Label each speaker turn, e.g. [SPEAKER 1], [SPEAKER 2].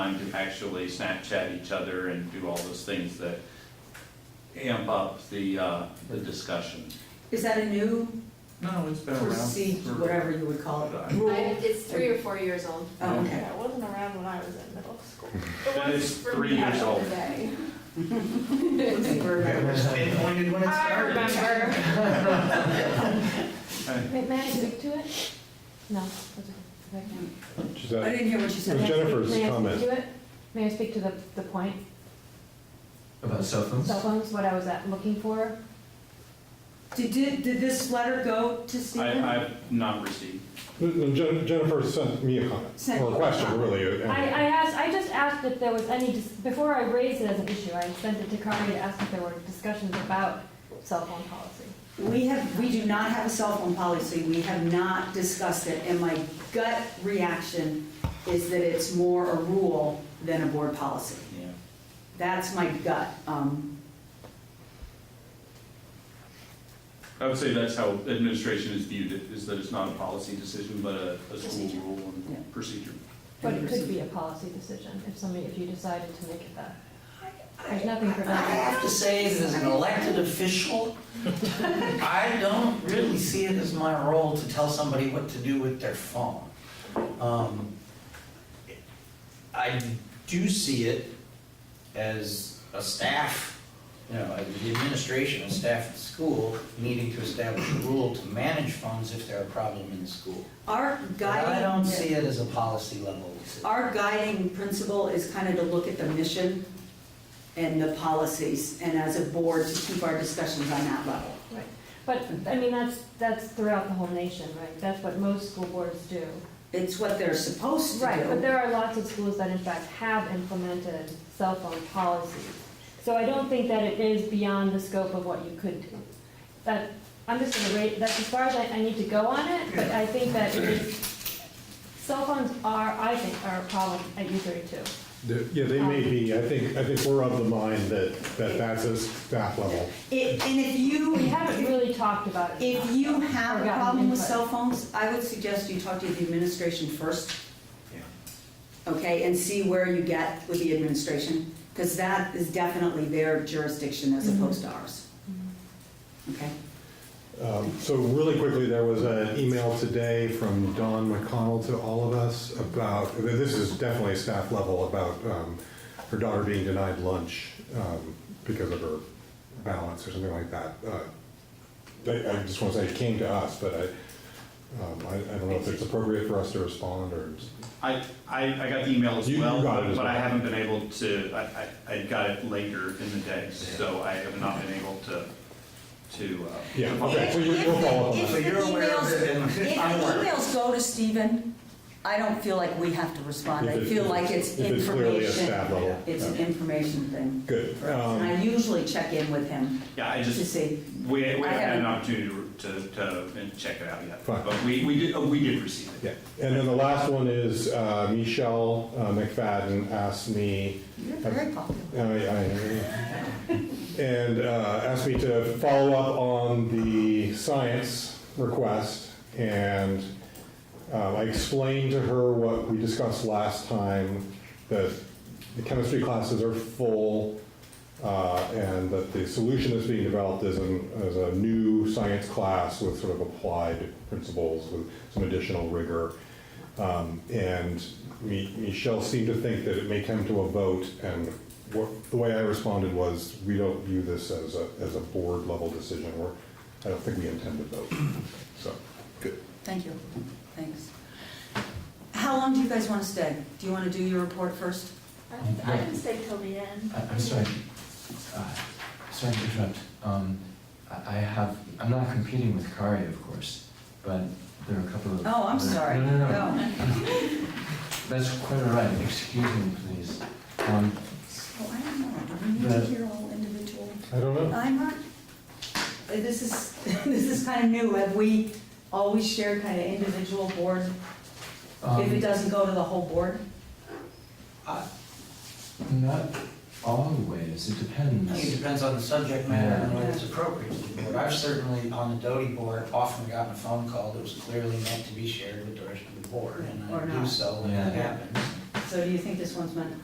[SPEAKER 1] time to actually Snapchat each other and do all those things that amp up the, uh, the discussion.
[SPEAKER 2] Is that a new
[SPEAKER 1] No, it's been around
[SPEAKER 2] procedure,
[SPEAKER 1] for.
[SPEAKER 2] whatever you would call it?
[SPEAKER 1] And
[SPEAKER 3] I- It's three or four years old.
[SPEAKER 2] Oh, okay.
[SPEAKER 4] Yeah, it wasn't around when I was in middle school.
[SPEAKER 1] it's three years old.
[SPEAKER 3] Today.
[SPEAKER 5] Pinpointed when it
[SPEAKER 4] I
[SPEAKER 5] started.
[SPEAKER 4] remember.
[SPEAKER 6] Wait, may I speak to it? No. okay.
[SPEAKER 7] She's
[SPEAKER 2] I
[SPEAKER 7] at-
[SPEAKER 2] didn't hear what you
[SPEAKER 7] It was
[SPEAKER 2] said.
[SPEAKER 7] just- Jennifer's
[SPEAKER 6] May I speak
[SPEAKER 7] comment.
[SPEAKER 6] to it? May I speak to the, the point,
[SPEAKER 5] About cell phones?
[SPEAKER 6] cell phones, what I was at, looking for?
[SPEAKER 2] Did, did, did this letter go to Stephen?
[SPEAKER 1] I, I've not received.
[SPEAKER 7] no, Jen- Jennifer sent me a comment,
[SPEAKER 2] Sent
[SPEAKER 7] or
[SPEAKER 2] you a
[SPEAKER 7] a question,
[SPEAKER 2] comment.
[SPEAKER 7] really.
[SPEAKER 6] I,
[SPEAKER 7] and-
[SPEAKER 6] I asked, I just asked if there was any, dis- before I raised it as an issue, I sent it to Kari to ask if there were discussions about cell phone policy.
[SPEAKER 2] We have, we do not have a cell phone policy, we have not discussed it, and my gut reaction is that it's more a rule than a board policy.
[SPEAKER 1] Yeah.
[SPEAKER 2] That's my gut. Um,
[SPEAKER 1] I would say that's how administration is viewed, it- is that it's not a policy decision, but a, a school
[SPEAKER 2] Procedure.
[SPEAKER 1] rule
[SPEAKER 2] Yeah.
[SPEAKER 1] and procedure.
[SPEAKER 6] But it could be a policy decision if somebody, if you decided to make it that. There's nothing
[SPEAKER 5] I
[SPEAKER 6] preventing.
[SPEAKER 5] have to say, as an elected official, I don't really see it as my role to tell somebody what to do with their phone. Um, I do see it as a staff, you know, like the administration, and staff at the school, needing to establish a rule to manage phones if they're a problem in the school.
[SPEAKER 2] Our
[SPEAKER 5] But I
[SPEAKER 2] guiding-
[SPEAKER 5] don't see it as a policy level.
[SPEAKER 2] Our guiding principle is kind of to look at the mission and the policies, and as a board, to keep our discussions on that level.
[SPEAKER 6] Right. But, I mean, that's, that's throughout the whole nation, right? That's what most school boards do.
[SPEAKER 2] It's what they're supposed to do.
[SPEAKER 6] Right, but there are lots of schools that in fact have implemented cell phone policies. So I don't think that it is beyond the scope of what you could do. That, I'm just gonna rate, that's as far as I, I need to go on it, but I think that it is, cell phones are, I think, are a problem at U thirty-two.
[SPEAKER 7] They're- Yeah, they may be, I think, I think we're of the mind that, that that's a staff level.
[SPEAKER 2] It- And if you,
[SPEAKER 6] We haven't really talked about it.
[SPEAKER 2] if
[SPEAKER 6] enough.
[SPEAKER 2] you have
[SPEAKER 6] Or
[SPEAKER 2] a
[SPEAKER 6] gotten
[SPEAKER 2] problem with
[SPEAKER 6] input.
[SPEAKER 2] cell phones, I would suggest you talk to the administration first. Okay, and see where you get with the administration, because that is definitely their jurisdiction as
[SPEAKER 6] Mm-hmm.
[SPEAKER 2] opposed to ours. Okay?
[SPEAKER 7] Um, So really quickly, there was an email today from Don McConnell to all of us about, this is definitely staff level, about um, her daughter being denied lunch um, because of her balance or something like that. Uh, they- I just want to say it came to us, but I, um, I I don't know if it's appropriate for us to respond or
[SPEAKER 1] I, I, I got the email as
[SPEAKER 7] You- you
[SPEAKER 1] well,
[SPEAKER 7] got it as
[SPEAKER 1] but I
[SPEAKER 7] well.
[SPEAKER 1] haven't been able to, I, I, I got it later in the day, so I have not been able to, to. uh,
[SPEAKER 7] Yeah,
[SPEAKER 1] to follow
[SPEAKER 7] okay, so you- you'll follow up on
[SPEAKER 2] If
[SPEAKER 5] So
[SPEAKER 7] that.
[SPEAKER 2] the
[SPEAKER 5] you're aware of it and
[SPEAKER 2] emails, if
[SPEAKER 5] I'm
[SPEAKER 2] the
[SPEAKER 5] aware of it.
[SPEAKER 2] emails go to Stephen, I don't feel like we have to respond.
[SPEAKER 7] If
[SPEAKER 2] I
[SPEAKER 7] it-
[SPEAKER 2] feel like it's
[SPEAKER 7] If it's clearly a
[SPEAKER 2] information.
[SPEAKER 7] staff level.
[SPEAKER 2] It's an
[SPEAKER 7] yeah.
[SPEAKER 2] information thing.
[SPEAKER 7] Good.
[SPEAKER 2] And I
[SPEAKER 7] Um,
[SPEAKER 2] usually check in with him
[SPEAKER 1] Yeah, I
[SPEAKER 2] to
[SPEAKER 1] just,
[SPEAKER 2] see.
[SPEAKER 1] We, we haven't had
[SPEAKER 2] haven't-
[SPEAKER 1] an opportunity to, to, to check it out yet,
[SPEAKER 7] Fine.
[SPEAKER 1] but we, we did, oh, we did receive it.
[SPEAKER 7] Yeah, and then the last one is uh, Michelle uh, McFadden asked me,
[SPEAKER 2] You're very popular.
[SPEAKER 7] I- I- and uh, asked me to follow up on the science request. And um, I explained to her what we discussed last time, that the chemistry classes are full uh, and that the solution that's being developed is an, is a new science class with sort of applied principles with some additional rigor. Um, and Mi- Michelle seemed to think that it may come to a vote, and what, the way I responded was, we don't view this as a, as a board level decision, or I don't think we intend to vote, so.
[SPEAKER 2] Thank you. Thanks. How long do you guys want to stay? Do you want to do your report first?
[SPEAKER 4] I think I can stay till the end.
[SPEAKER 8] I- I'm sorry, uh, sorry to interrupt. Um, I I have, I'm not competing with Kari, of course, but there are a couple of.
[SPEAKER 2] Oh, I'm
[SPEAKER 8] other-
[SPEAKER 2] sorry.
[SPEAKER 8] No, no, no,
[SPEAKER 2] Go.
[SPEAKER 8] that's quite all right, excuse me, please. Um,
[SPEAKER 2] So I don't know, do we need to
[SPEAKER 8] The-
[SPEAKER 2] hear all individual?
[SPEAKER 7] I don't know.
[SPEAKER 2] I'm not, this is, this is kind of new. Have we always shared kind of individual board, if it
[SPEAKER 8] um,
[SPEAKER 2] doesn't go to the whole board?
[SPEAKER 8] um, Not always, it
[SPEAKER 5] I think it
[SPEAKER 8] depends.
[SPEAKER 5] depends on the subject matter and whether it's appropriate to the board. I've certainly, on the Doty board, often gotten a phone call that was clearly meant to be shared with the rest of the board, and
[SPEAKER 2] Or
[SPEAKER 5] I do
[SPEAKER 2] not.
[SPEAKER 5] so when
[SPEAKER 8] Yeah.
[SPEAKER 5] that happens.
[SPEAKER 2] So do you think this one's meant